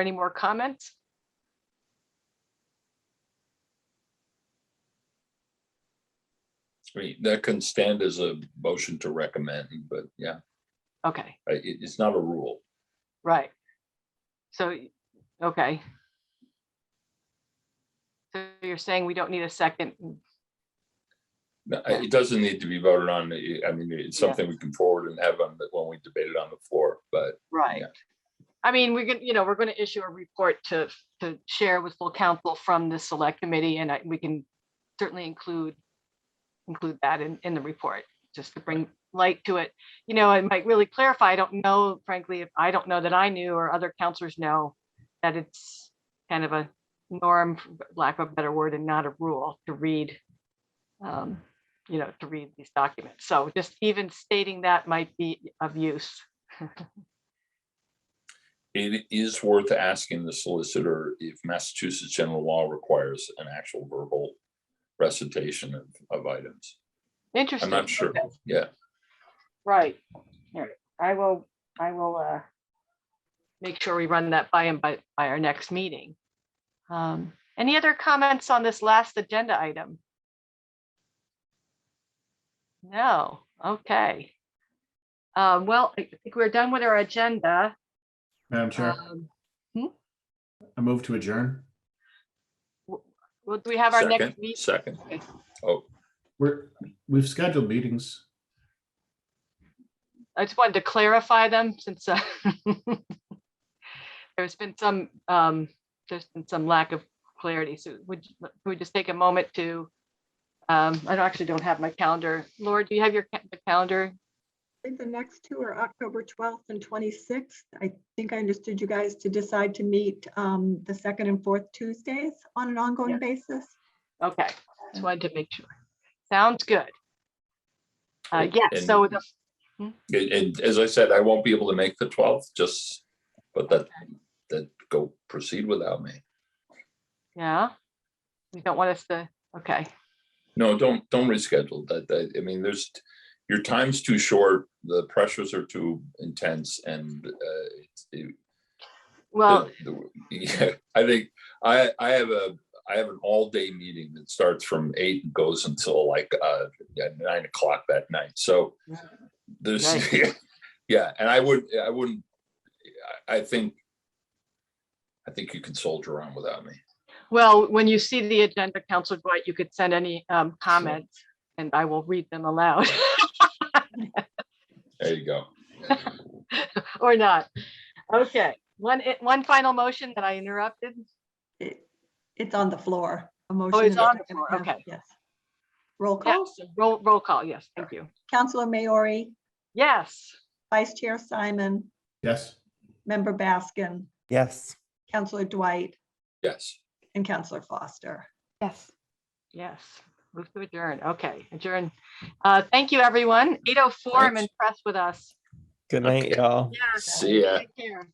Any more comments? I mean, That can stand as a motion to recommend, but yeah, Okay, I- it, it's not a rule. right. So, okay. So you're saying we don't need a second? No, I- It doesn't need to be voted on. I I mean, it's Yeah. something we can forward and have on, the when we debate it on the floor, but Right. I mean, we're gonna, you know, we're gonna issue a report to, to share with full council from the select committee and I, we can certainly include, include that in, in the report, just to bring light to it. You know, it might really clarify, I don't know, frankly, if I don't know that I knew or other counselors know that it's kind of a norm, for lack of a better word, and not a rule to read, um, you know, to read these documents. So just even stating that might be of use. it is worth asking the solicitor if Massachusetts general law requires an actual verbal recitation of, of items. Interesting. I'm not sure. Okay. Yeah, Right. All right. I will, I will, uh, make sure we run that by and by, by our next meeting. Um, any other comments on this last agenda item? No, okay. Um, well, I think we're done with our agenda. Madam Chair, Um, I move to adjourn. Well, do we have our second, next meeting? second. Okay. Oh, We're, we've scheduled meetings. I just wanted to clarify them since, uh, there's been some, um, there's been some lack of clarity. So would, you- would we just take a moment to, um, I don't- actually don't have my calendar. Laura, do you have your ca- the calendar? I think the next two are October 12th and 26th. I think I understood you guys to decide to meet um, the second and fourth Tuesdays on an Yeah. ongoing basis. Okay, just wanted to make sure. Sounds good. Uh, Great. yeah, And- so the and, and as I said, I won't be able to make the twelfth, just, but that, that go proceed without me. yeah. You don't want us to, okay, No, don't, don't reschedule that, that, I mean, there's, your time's too short, the pressures are too intense and, uh, it's- it- well, the- the- yeah, I think, I, I have a, I have an all-day meeting that starts from eight and goes until like, uh, yeah, nine o'clock that night, so there's, yeah, and I would, I wouldn't, I, I think, I think you can soldier on without me. Well, when you see the agenda, Counselor Dwight, you could send any um, comments and I will read them aloud There you go. or not. Okay, one, eh, one final motion that I interrupted. It- It's on the floor. A motion Oh, it's and a on the second. floor, Yes, okay. Yes. Roll call. Yes, roll, roll call. Yes, thank you. Counselor Maori, Yes. Vice Chair Simon, Yes. Member Baskin, Yes. Counselor Dwight, Yes. and Counselor Foster. Yes. Yes, move to adjourn. Okay, adjourn. Uh, Thank you, everyone. 8:04, I'm Thanks. impressed with us. Good night, Okay. y'all. Yes. See ya. Take care.